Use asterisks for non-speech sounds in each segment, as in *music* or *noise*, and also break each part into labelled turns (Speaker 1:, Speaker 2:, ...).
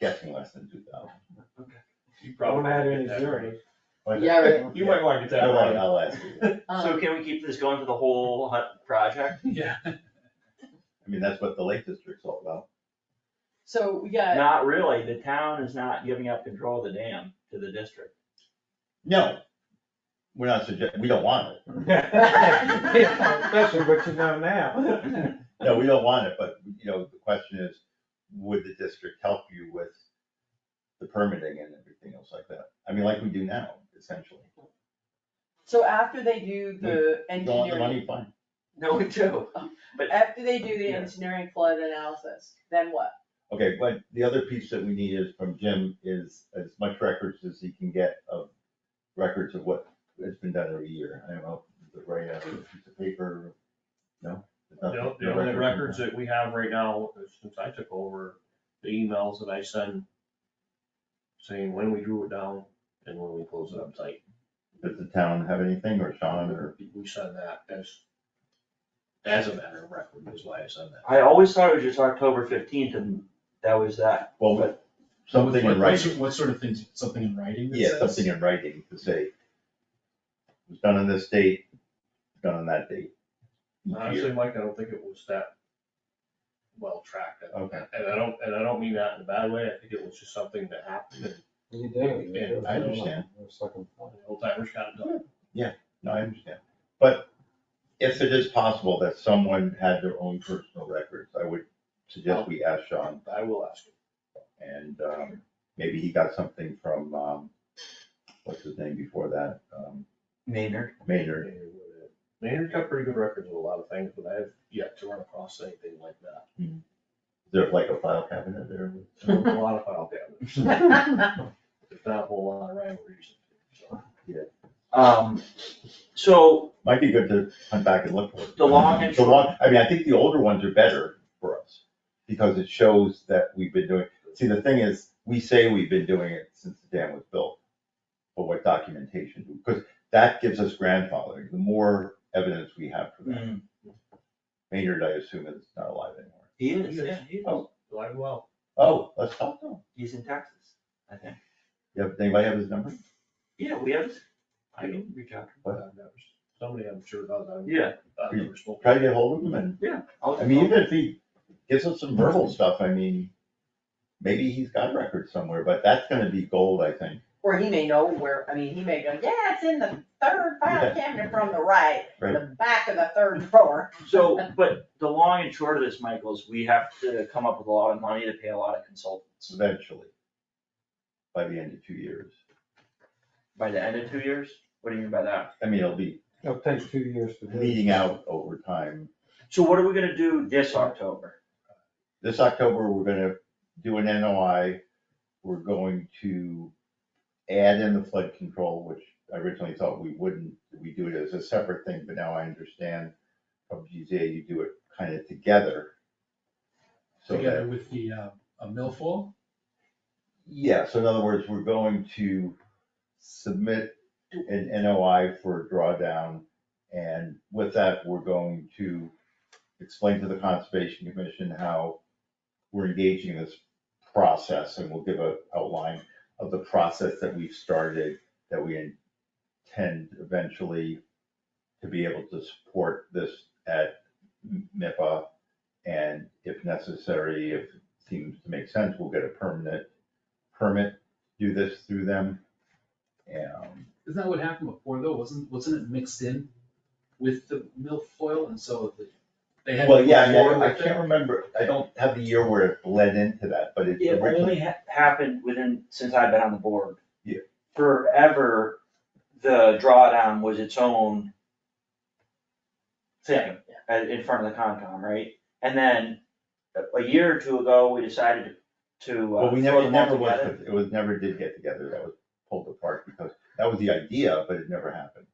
Speaker 1: guessing less than two thousand.
Speaker 2: You probably
Speaker 3: Don't add any
Speaker 2: get that
Speaker 3: zeros.
Speaker 1: *laughs*
Speaker 4: Yeah,
Speaker 2: right. You might wanna get that
Speaker 1: I
Speaker 2: right.
Speaker 1: won't, I'll ask you.
Speaker 5: So
Speaker 4: um,
Speaker 5: can we keep this going for the whole hu- project?
Speaker 2: Yeah.
Speaker 1: I mean, that's what the Lake District's all about.
Speaker 4: so we got,
Speaker 5: Not really, the town is not giving up control of the dam to the *laughs* district.
Speaker 1: No, we're not suggesting, we don't want it.
Speaker 3: *laughs*
Speaker 4: *laughs*
Speaker 3: Especially what you know now.
Speaker 1: No, we don't want it, but, you know, the question is, would the district help you with the permitting and everything else like that? I mean, like we do now, essentially.
Speaker 4: so after they do the
Speaker 1: Don't want the
Speaker 4: engineering,
Speaker 1: money, fine.
Speaker 5: No, we do. but-
Speaker 4: after they do the
Speaker 5: Yeah.
Speaker 4: engineering flood analysis, then what?
Speaker 1: Okay, but the other piece that we need is from Jim is as much records as he can get of records of what has been done every year. I don't know, is it right out of a piece of paper? No? There's nothing-
Speaker 2: The, the
Speaker 1: no
Speaker 2: only records that we have right now, since I took over, the emails that I send saying when we drew it down and when we closed it up tight.
Speaker 1: Does the town have anything or Sean or?
Speaker 2: We send that as, as a matter of record is why I said that.
Speaker 5: I always thought it was just October fifteenth and that was that.
Speaker 1: Well, but something in
Speaker 6: What- what sor-
Speaker 1: writing,
Speaker 6: What sort of things, something in writing that
Speaker 1: yeah,
Speaker 6: says?
Speaker 1: something in writing to say, it was done on this date, done on that date. each year.
Speaker 2: Honestly, Mike, I don't think it was that well tracked.
Speaker 1: Okay.
Speaker 2: And I don't, and I don't mean that in a bad way. I think it was just something that happened and
Speaker 3: You do, you do.
Speaker 1: I understand.
Speaker 3: There's second
Speaker 2: the
Speaker 3: thought.
Speaker 2: old timers got it done.
Speaker 1: No, I understand, but if it is possible that someone had their own personal records, I would suggest we ask Sean
Speaker 2: I will ask. him.
Speaker 1: And um, maybe he got something from, um, what's his name before that, um,
Speaker 5: Maynard.
Speaker 1: Maynard.
Speaker 2: Maynard's got pretty good records of a lot of things, but I have yet to run across anything like that.
Speaker 1: Is there like a file cabinet there?
Speaker 2: There were A lot of file cabinets. There's not a whole lot of rhyme or reason. so.
Speaker 5: Um, so
Speaker 1: Might be good to hunt back and look for it.
Speaker 5: The long and
Speaker 1: The long, I mean, I think the older ones are better for us because it shows that we've been doing, see, the thing is, we say we've been doing it since the dam was built. But what documentation? Because that gives us grandfathering. The more evidence we have for that.
Speaker 5: mm,
Speaker 1: Maynard, I assume, is not alive anymore.
Speaker 5: he is, yeah, he is.
Speaker 1: Oh.
Speaker 2: Alive and well.
Speaker 1: Oh, let's talk to him.
Speaker 5: He's in Texas, I think.
Speaker 1: Yeah, does anybody have his number?
Speaker 5: Yeah, we have, I can reach out.
Speaker 1: What?
Speaker 2: I've never- Somebody I'm sure does. I've-
Speaker 5: Yeah.
Speaker 2: I've never spoken.
Speaker 1: Try to get hold of him and
Speaker 5: I'll-
Speaker 1: I mean, even if he gives us some verbal stuff, I mean, maybe he's got records somewhere, but that's gonna be gold, I think.
Speaker 4: Or he may know where, I mean, he may go, yeah, it's in the third
Speaker 1: Yeah.
Speaker 4: file cabinet from the right,
Speaker 1: Right.
Speaker 4: the back of the third drawer.
Speaker 5: So, but the long and short of this, Michael, is we have to come up with a lot of money to pay a lot of consultants
Speaker 1: Eventually, by the end of two years.
Speaker 5: by the end of two years. What do you mean by that?
Speaker 1: I mean, it'll be
Speaker 3: It'll take two years to do. it.
Speaker 1: E bleeding out over time.
Speaker 5: So what are we gonna do this October?
Speaker 1: This October, we're gonna do an NOI. We're going to add in the flood control, which I originally thought we wouldn't. We do it as a separate thing, but now I understand from GZA, you do it kind of together. So that
Speaker 6: Together with the, uh, a millful,
Speaker 1: Yeah, so in other words, we're going to submit an NOI for a drawdown. And with that, we're going to explain to the Conservation Commission how we're engaging in this process. And we'll give a outline of the process that we've started, that we intend eventually to be able to support this at MIPA. And if necessary, if it seems to make sense, we'll get a permanent permit, do this through them. Um,
Speaker 6: isn't that what happened before though, wasn't, wasn't it mixed in with the milfoil and so the- they had.
Speaker 1: Well, yeah, I
Speaker 6: before
Speaker 1: mean, I
Speaker 6: with
Speaker 1: can't
Speaker 6: that?
Speaker 1: remember, I don't have the year where it bled into that, but it
Speaker 5: It only
Speaker 1: originally,
Speaker 5: ha- happened within, since I've been on the board.
Speaker 1: Yeah.
Speaker 5: Forever, the drawdown was its own thing uh, in front of the Concom, right? And then a- a year or two ago, we decided to. uh,
Speaker 1: well, we never,
Speaker 5: throw
Speaker 1: it
Speaker 5: them all
Speaker 1: never was,
Speaker 5: together.
Speaker 1: it was, never did get together, that was pulled apart because that was the idea, but it never happened.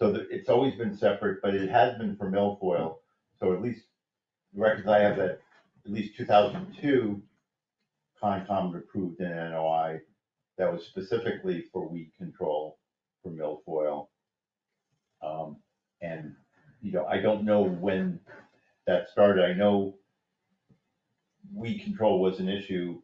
Speaker 1: So that, it's always been separate, but it has been for milfoil, so at least, the records I have that, at least two thousand two, Concom approved an NOI that was specifically for weed control for milfoil. Um, and, you know, I don't know when that started, I know weed control was an issue